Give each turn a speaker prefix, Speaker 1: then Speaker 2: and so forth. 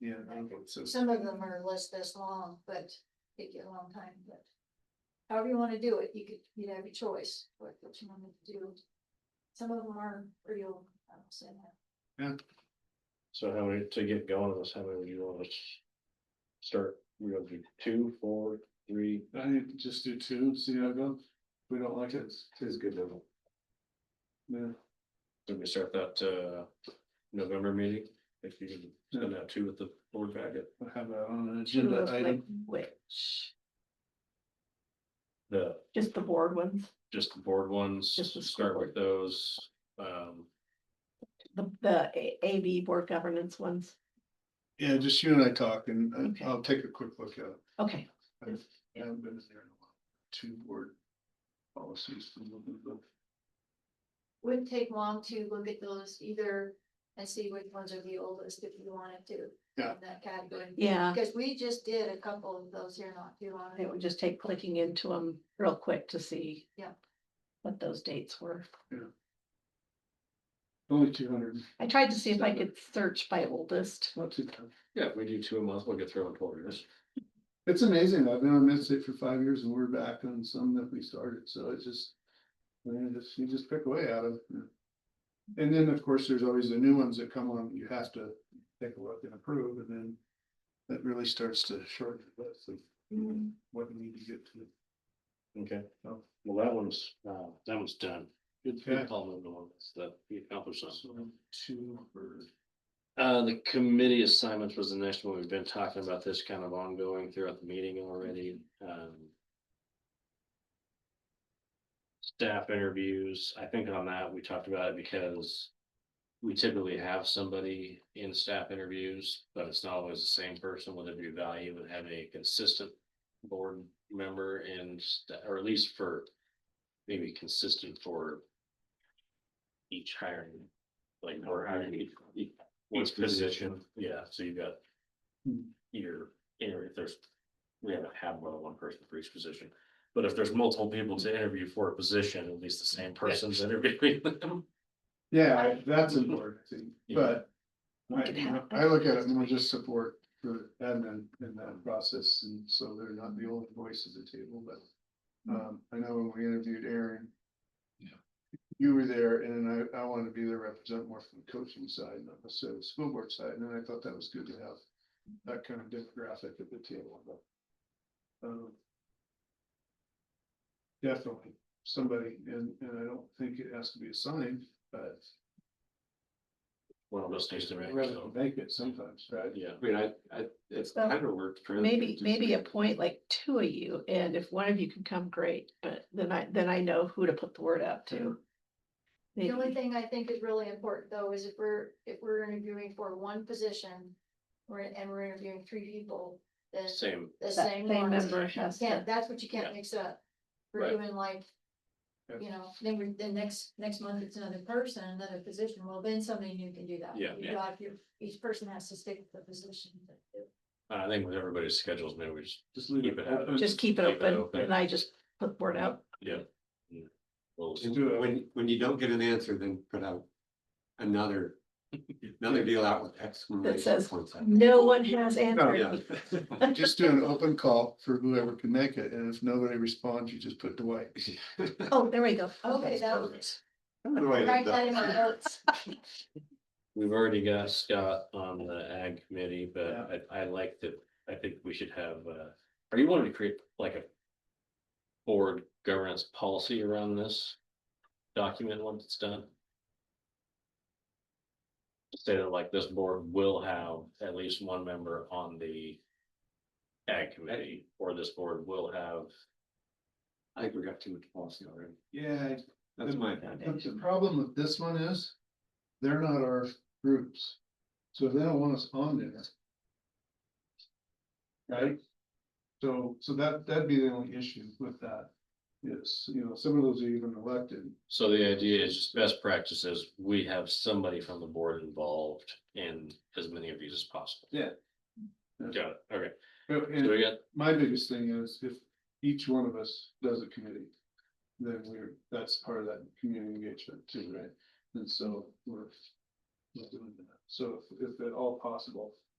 Speaker 1: Yeah. I don't know, it says-
Speaker 2: Some of them are less this long, but take you a long time, but. However you wanna do it, you could, you have your choice, what, what you wanna do. Some of them are real, I will say that.
Speaker 3: So how many, to get going on this, how many would you want us? Start, we're gonna do two, four, three,
Speaker 1: I think just do two, see how it goes. If We don't like it. It's good level. Yeah,
Speaker 3: did we start that, uh, November meeting? If you can send out two with the board packet,
Speaker 1: we'll have that on an
Speaker 4: Two
Speaker 1: agenda
Speaker 4: of like
Speaker 1: item.
Speaker 4: which,
Speaker 3: the,
Speaker 4: just the board ones,
Speaker 3: just the board ones,
Speaker 4: Just the school
Speaker 3: start with those, um.
Speaker 4: the, the A- AV board governance ones.
Speaker 1: Yeah, just you and I talk and and
Speaker 4: Okay.
Speaker 1: I'll take a quick look at it.
Speaker 4: Okay,
Speaker 1: I haven't been there in a while. Two board policies.
Speaker 2: Wouldn't take long to look at those either and see which ones are the oldest if you wanted to.
Speaker 1: Yeah.
Speaker 2: in That category,
Speaker 4: yeah,
Speaker 2: because we just did a couple of those here not too long
Speaker 4: it
Speaker 2: ago.
Speaker 4: would just take clicking into them real quick to see.
Speaker 2: Yeah.
Speaker 4: What those dates were.
Speaker 1: Only two hundred,
Speaker 4: I tried to see if I could search by oldest.
Speaker 1: not too tough.
Speaker 3: Yeah, if we do two a month, we'll get through in twelve years.
Speaker 1: It's amazing. I've been on this site for five years and we're back on some that we started. So it's just. Man, just, you just pick away out of. it. And then, of course, there's always the new ones that come on. You have to take a look and approve and then. That really starts to shorten the list of
Speaker 4: Mm-hmm.
Speaker 1: what we need to get to.
Speaker 3: Okay,
Speaker 1: Oh.
Speaker 3: well, that one's, uh, that one's done. Good,
Speaker 1: Okay.
Speaker 3: good call, number one, That's- that, you accomplished something.
Speaker 1: So two or.
Speaker 3: Uh, the committee assignments was the next one. We've been talking about this kind of ongoing throughout the meeting already, um. Staff interviews, I think on that, we talked about it because. We typically have somebody in staff interviews, but it's not always the same person, would it be value in having a consistent board member and, sta- or at least for. Maybe consistent for. Each hiring, like, or hiring each, each position, yeah, so you've got.
Speaker 1: Hmm.
Speaker 3: Your, interview. if there's, we haven't had more than one person for each position, but if there's multiple people to interview for a position, at least the same person's interviewing them.
Speaker 1: Yeah,
Speaker 2: I-
Speaker 1: that's important, I think,
Speaker 3: Yeah.
Speaker 1: but.
Speaker 4: We could
Speaker 1: I,
Speaker 4: have-
Speaker 1: I look at it more just support for admin in that process, and so they're not the only voice at the table, but. Um, I know when we interviewed Aaron. You were there, and then I, I wanted to be there, represent more from the coaching side, not necessarily the school board side, and I thought that was good to have. That kind of demographic at the table, but. um, Definitely somebody, and, and I don't think it has to be assigned, but.
Speaker 3: One of those things to make,
Speaker 1: Rather
Speaker 3: so,
Speaker 1: make it sometimes, right?
Speaker 3: yeah,
Speaker 5: I mean, I, I, it's
Speaker 4: So,
Speaker 5: kind of worked. for-
Speaker 4: Maybe, maybe appoint like two of you, and if one of you can come, great, but then I, then I know who to put the word out to.
Speaker 2: The only
Speaker 4: Maybe.
Speaker 2: thing I think is really important though is if we're, if we're interviewing for one position. We're, and we're interviewing three people, then
Speaker 3: same,
Speaker 2: the
Speaker 4: That
Speaker 2: same
Speaker 4: same
Speaker 2: ones.
Speaker 4: member has
Speaker 2: Can't,
Speaker 4: to-
Speaker 2: that's what you can't
Speaker 3: Yeah.
Speaker 2: mix up. We're
Speaker 3: Right.
Speaker 2: doing like.
Speaker 1: Yeah.
Speaker 2: You know, then we then next, next month it's another person, another position, well, then somebody new can do that.
Speaker 3: Yeah.
Speaker 2: You got your, each person has to stick with the position. that they-
Speaker 3: I think with everybody's schedules, maybe we just,
Speaker 1: Just leave
Speaker 3: Keep
Speaker 1: it
Speaker 3: it open.
Speaker 1: open.
Speaker 4: Just keep it
Speaker 3: Keep it
Speaker 4: open,
Speaker 3: open.
Speaker 4: and I just put the word out.
Speaker 3: yeah. yeah. Well,
Speaker 1: Just do it.
Speaker 5: When, when you don't get an answer, then put out another, another deal out with exclamation
Speaker 4: says-
Speaker 5: points. on it.
Speaker 4: No one has answered
Speaker 5: Yeah.
Speaker 4: me.
Speaker 1: Just do an open call for whoever can make it, and if nobody responds, you just put Dwight.
Speaker 4: Oh, there we go.
Speaker 2: Okay, that was.
Speaker 5: The way
Speaker 2: Write
Speaker 5: that-
Speaker 2: that in my notes.
Speaker 3: We've already got Scott on the ag committee, but I, I like that, I think we should have, uh, are you wanting to create like a. Board governance policy around this document once it's done? Say that like this board will have at least one member on the. Ag committee, or this board will have,
Speaker 5: I think we got too much policy already.
Speaker 1: Yeah,
Speaker 5: That's my.
Speaker 1: but the problem with this one is, they're not our groups, so they don't want us on there. Right? So, so that, that'd be the only issue with that, is, you know, some of those are even elected.
Speaker 3: so the idea is just best practices, we have somebody from the board involved in as many of these as possible.
Speaker 1: Yeah.
Speaker 3: Got it, okay,
Speaker 1: But-
Speaker 3: so
Speaker 1: and-
Speaker 3: we got
Speaker 1: my biggest thing is if each one of us does a committee, then we're, that's part of that community engagement too, right? And so we're. we're doing that. So if- if at all possible,